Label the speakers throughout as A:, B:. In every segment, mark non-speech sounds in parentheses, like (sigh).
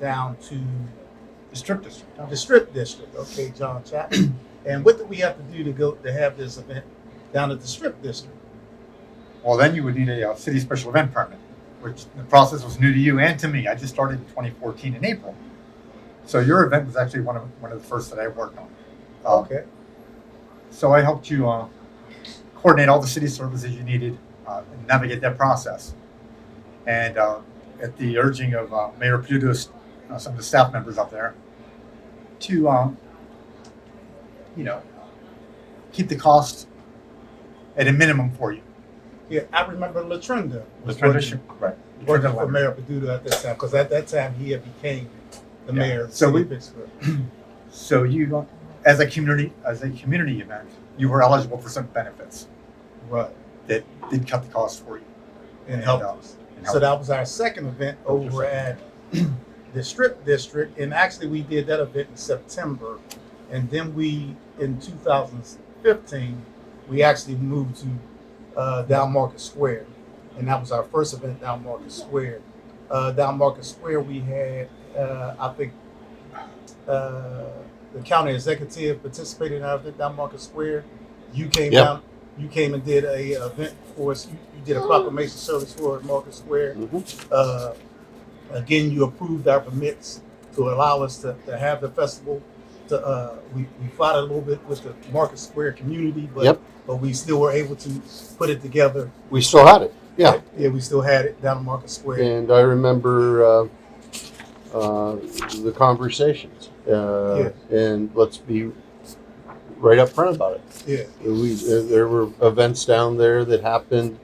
A: down to
B: The strip district.
A: the strip district. Okay, John Chapman. (clears throat) and what do we have to do to go to have this event down at the strip district?
B: Well, then you would need a, uh city special event permit, which the process was new to you and to me. I just started in 2014 in April. So your event was actually one of one of the first that I worked on. Uh,
A: Okay.
B: So I helped you uh, coordinate all the city services you needed uh, and navigate that process. And uh, at the urging of uh, Mayor Pluto, uh, some of the staff members up there, to um, you know keep the cost at a minimum for you.
A: Yeah, I remember Latrinda was
B: right?
A: working, working for Mayor Paduto at that time because at that time he had became the
B: Yeah.
A: mayor of
B: So
A: so
B: we-
A: we, Pittsburgh.
B: So you, as a community, as a community event, you were eligible for some benefits
A: Right.
B: that did cut the cost for you.
A: And helped
B: uh,
A: us.
B: and
A: So
B: helped.
A: that was our second event
B: That was
A: over
B: your
A: at (clears throat) the strip district. And actually we did that event in September. And then we in 2015, we actually moved to uh, Down Market Square. And that was our first event down Market Square. Uh, down Market Square we had uh, I think uh, the county executive participated in our event down Market Square. You came
C: Yeah.
A: down you came and did a event for us. You, you did a proclamation service for Market Square.
C: Mhm.
A: Uh, again, you approved our permits to allow us to, to have the festival. To, uh, we, we fought a little bit with the Market Square community, but
C: Yep.
A: but we still were able to put it together.
C: We still had it. Yeah.
A: yeah, we still had it down at Market Square.
C: And I remember uh, uh, the conversations. Uh, And let's be right up front about it.
A: Yeah,
C: We, uh, there were events down there that happened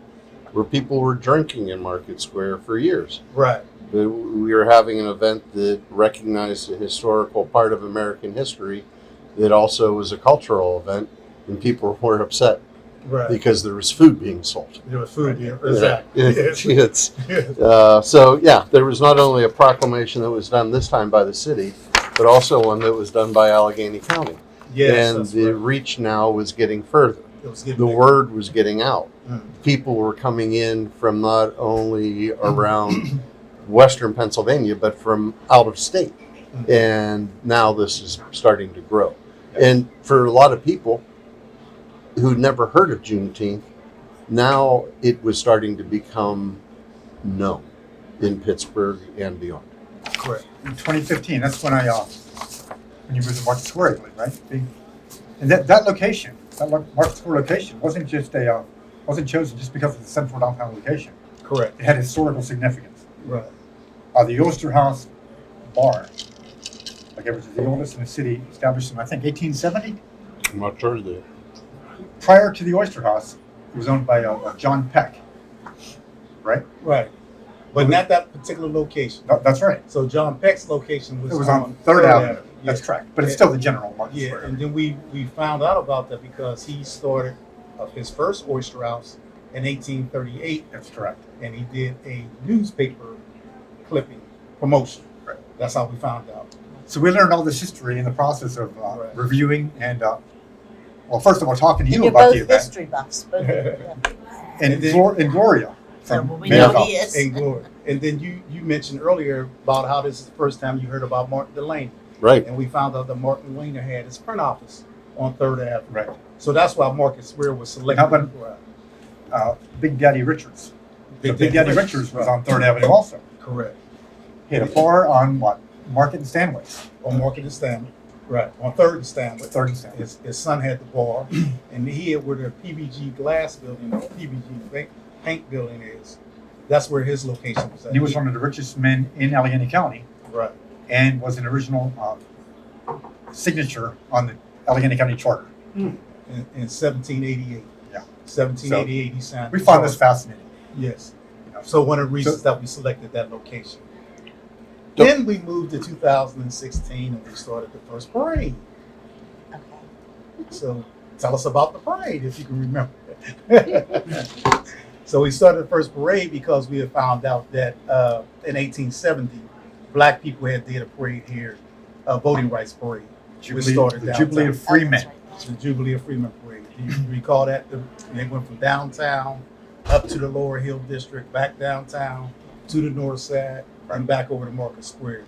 C: where people were drinking in Market Square for years.
A: right.
C: that we were having an event that recognized a historical part of American history that also was a cultural event, and people were upset
A: Right.
C: because there was food being sold.
A: there was food here.
C: Yeah.
A: Exactly. Yes.
C: (laughs) It's-
B: (laughs)
A: Yes.
C: uh, so, yeah, there was not only a proclamation that was done this time by the city, but also one that was done by Allegheny County.
A: Yes,
C: and
A: that's
C: the
A: right.
C: reach now was getting further.
A: It was getting
C: The
A: big.
C: word was getting out
A: Mm.
C: people were coming in from not only around western Pennsylvania, but from out of state.
A: Mhm.
C: And now this is starting to grow. And for a lot of people who'd never heard of Juneteenth, now it was starting to become known in Pittsburgh and beyond.
A: Correct.
B: in 2015. That's when I uh, when you moved to Market Square, I believe, right? The- And that, that location, that lo- Market Square location, wasn't just a uh, wasn't chosen just because of the central downtown location.
A: Correct.
B: It had historical significance.
A: Right.
B: Uh, the Oster House Bar, like it was the oldest in the city, established in I think 1870.
C: I'm not sure that.
B: Prior to the Oyster House, it was owned by uh, uh, John Peck. Right?
A: Right. But not that particular location.
B: That- that's right.
A: So John Peck's location was,
B: It was on Third Avenue.
A: Yeah.
B: That's correct. But it's
A: Yeah.
B: still the general Market
A: Yeah,
B: Square.
A: and then we we found out about that because he started uh, his first oyster house in 1838,
B: That's correct.
A: and he did a newspaper clipping promotion.
B: Right.
A: That's how we found out.
B: So we learned all this history in the process of uh,
A: Right.
B: reviewing and, uh, well, first of all, talking to you
D: You're
B: about
D: both
B: the event
D: history buffs, both. of you, yeah.
B: and,
A: And then-
B: Glor- and Gloria
D: So
B: from
D: well, we
B: Mayor
D: know
C: Mayerville.
D: he is.
A: And glory. And then you you mentioned earlier about how this is the first time you heard about Martin Delaney,
C: Right.
A: and we found out that Martin Delaney had his print office on Third Avenue.
B: Right.
A: So that's why Market Square was selected.
B: How about-
A: for our-
B: Uh, Big Daddy Richards. Big, Big Daddy Richards was on Third Avenue also.
A: Correct.
B: He had a bar on what? Market and Stanway.
A: On Market and Stanley. Right. On Third and Stanley.
B: Third and Stanway.
A: His, his son had the bar, (clears throat) and here where the PBG glass building, or PBG paint, paint building is, that's where his location was at.
B: He was one of the richest men in Allegheny County
A: right,
B: and was an original uh, signature on the Allegheny County Charter.
A: in, in 1788.
B: Yeah.
A: 1788, he signed.
B: We
A: the
B: found this
A: charter.
B: fascinating.
A: Yes. So one of the reasons that we selected that location.
C: Yep.
A: Then we moved to 2016 and we started the first parade.
D: Okay.
A: So tell us about the parade if you can remember. so we started the first parade because we had found out that uh, in 1870, black people had did a parade here, a voting rights parade,
B: Jubilee,
A: started
B: the
A: downtown.
B: Jubilee of
D: Oh,
B: Free
D: that's
B: Men.
D: right.
A: the Jubilee of Freeman Parade. Do you recall that? The, they went from downtown up to the Lower Hill District, back downtown to the north side, and back over to Market Square.